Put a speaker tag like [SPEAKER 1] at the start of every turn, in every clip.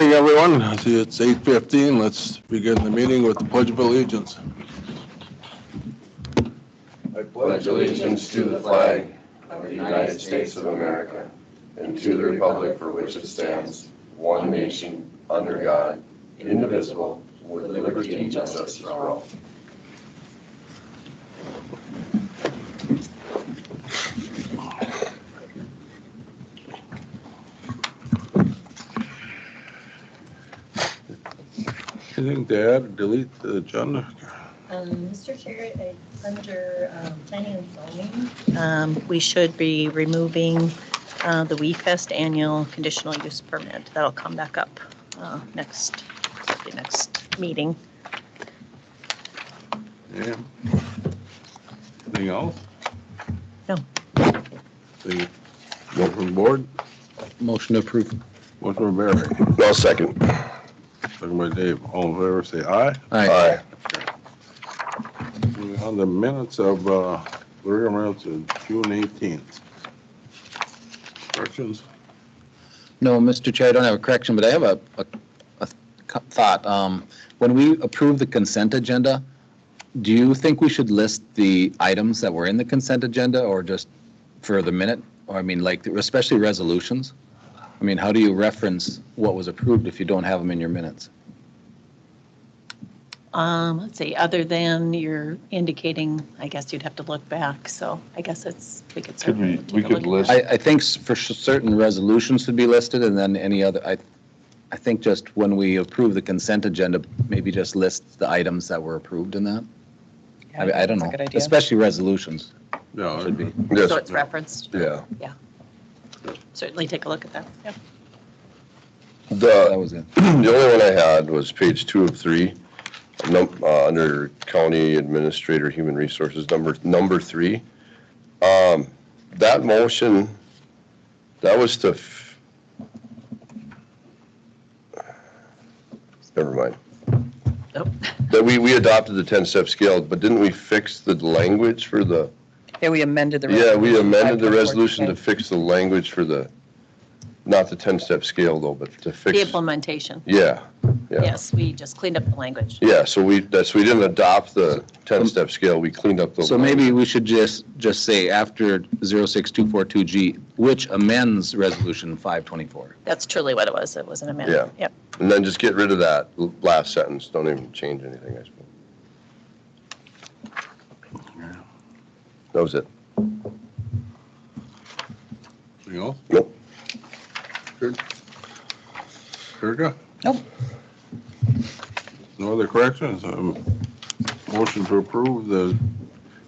[SPEAKER 1] morning, everyone. I see It's 8:15. Let's begin the meeting with the Pledge of Allegiance.
[SPEAKER 2] I pledge allegiance to the flag of the United States of America and to the republic for which it stands, one nation, under God, indivisible, with liberty and justice for all.
[SPEAKER 1] Anything to add, delete the agenda?
[SPEAKER 3] Um, Mr. Chair, I- under um, planning and zoning, um, we should be removing uh, the WeFest annual conditional use permit. That'll come back up uh, next, the next meeting.
[SPEAKER 1] Yeah. Anything else?
[SPEAKER 3] No.
[SPEAKER 1] The vote from the board,
[SPEAKER 4] Motion approved.
[SPEAKER 1] motion by Barry,
[SPEAKER 2] No second.
[SPEAKER 1] second by Dave. All in favor, say aye.
[SPEAKER 2] Aye.
[SPEAKER 1] Moving On the minutes of, uh, Larry Reynolds, June 18th. Corrections?
[SPEAKER 4] No, Mr. Chair, I don't have a correction, but I have a, a- a co- thought. Um, When we approve the consent agenda, do you think we should list the items that were in the consent agenda or just for the minute? Or I mean, like, especially resolutions? I mean, how do you reference what was approved if you don't have them in your minutes?
[SPEAKER 3] Um, Let's see, other than you're indicating, I guess you'd have to look back, so I guess it's, we could
[SPEAKER 5] Could we-
[SPEAKER 3] certainly. take
[SPEAKER 5] we
[SPEAKER 3] a
[SPEAKER 5] could
[SPEAKER 3] look at
[SPEAKER 4] I,
[SPEAKER 3] that.
[SPEAKER 4] I think s- for s- certain resolutions should be listed and then any other, I, I think just when we approve the consent agenda, maybe just list the items that were approved in that. I mean, I don't know, especially resolutions
[SPEAKER 1] No.
[SPEAKER 4] should be.
[SPEAKER 3] So it's referenced,
[SPEAKER 2] Yeah.
[SPEAKER 3] certainly take a look at that. Yep.
[SPEAKER 4] That
[SPEAKER 2] The,
[SPEAKER 4] was it.
[SPEAKER 2] the only one I had was page two of three, num, uh, under County Administrator Human Resources, number, number three. Um, that motion, that was to. f- Never mind.
[SPEAKER 3] Nope.
[SPEAKER 2] That we, we adopted the 10-step scale, but didn't we fix the language for the,
[SPEAKER 6] Yeah, we amended the.
[SPEAKER 2] yeah, we amended the resolution
[SPEAKER 6] resolution
[SPEAKER 2] to
[SPEAKER 6] to
[SPEAKER 2] fix the language for the, not the 10-step scale though, but to
[SPEAKER 3] The
[SPEAKER 2] fix.
[SPEAKER 3] implementation,
[SPEAKER 2] Yeah, yeah.
[SPEAKER 3] yes, we just cleaned up the language.
[SPEAKER 2] Yeah, so we, that's, we didn't adopt the 10-step scale, we cleaned up the.
[SPEAKER 4] So maybe we should just, just say after 06242G, which amends Resolution 524.
[SPEAKER 3] That's truly what it was, it was an amendment.
[SPEAKER 2] Yeah.
[SPEAKER 3] Yep.
[SPEAKER 2] And then just get rid of that l- last sentence, don't even change anything, I suppose. That was it.
[SPEAKER 1] Anything else?
[SPEAKER 2] Nope.
[SPEAKER 1] Kirka?
[SPEAKER 6] Nope.
[SPEAKER 1] No other corrections? Um, Motion to approve the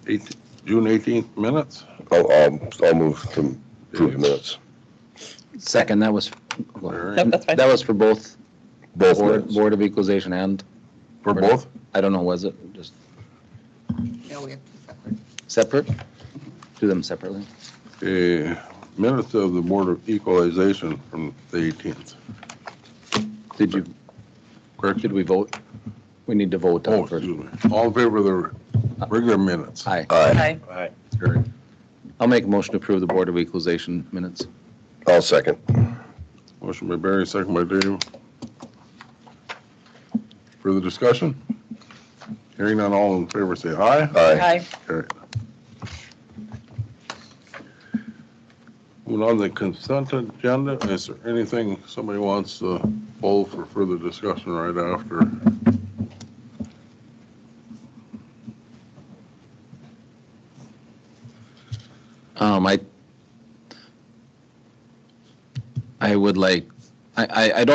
[SPEAKER 1] eight, June 18th minutes?
[SPEAKER 2] I'll, I'll, I'll move to approve the minutes,
[SPEAKER 4] Second, that was,
[SPEAKER 1] All right.
[SPEAKER 6] Nope, that's fine.
[SPEAKER 4] that was for both
[SPEAKER 2] both
[SPEAKER 4] Board,
[SPEAKER 2] minutes.
[SPEAKER 4] Board of Equalization and,
[SPEAKER 1] For both?
[SPEAKER 4] I don't know, was it just
[SPEAKER 6] No, we have
[SPEAKER 4] separate? Do them separately?
[SPEAKER 1] Okay, uh, minutes of the Board of Equalization from the 18th.
[SPEAKER 4] Did you,
[SPEAKER 1] Correct?
[SPEAKER 4] did we vote? We need to vote
[SPEAKER 1] Oh,
[SPEAKER 4] on first.
[SPEAKER 1] excuse me. All in favor of the regular minutes?
[SPEAKER 4] Aye.
[SPEAKER 2] Aye,
[SPEAKER 1] Carried.
[SPEAKER 4] I'll make a motion to approve the Board of Equalization minutes.
[SPEAKER 2] I'll second.
[SPEAKER 1] Motion by Barry, second by Dave. Further discussion? Hearing none, all in favor, say aye.
[SPEAKER 2] Aye,
[SPEAKER 6] Aye.
[SPEAKER 1] Carried. Moving on to the consent agenda, is there anything somebody wants to pull for further discussion right after?
[SPEAKER 4] Um, I, I would like, I, I, I don't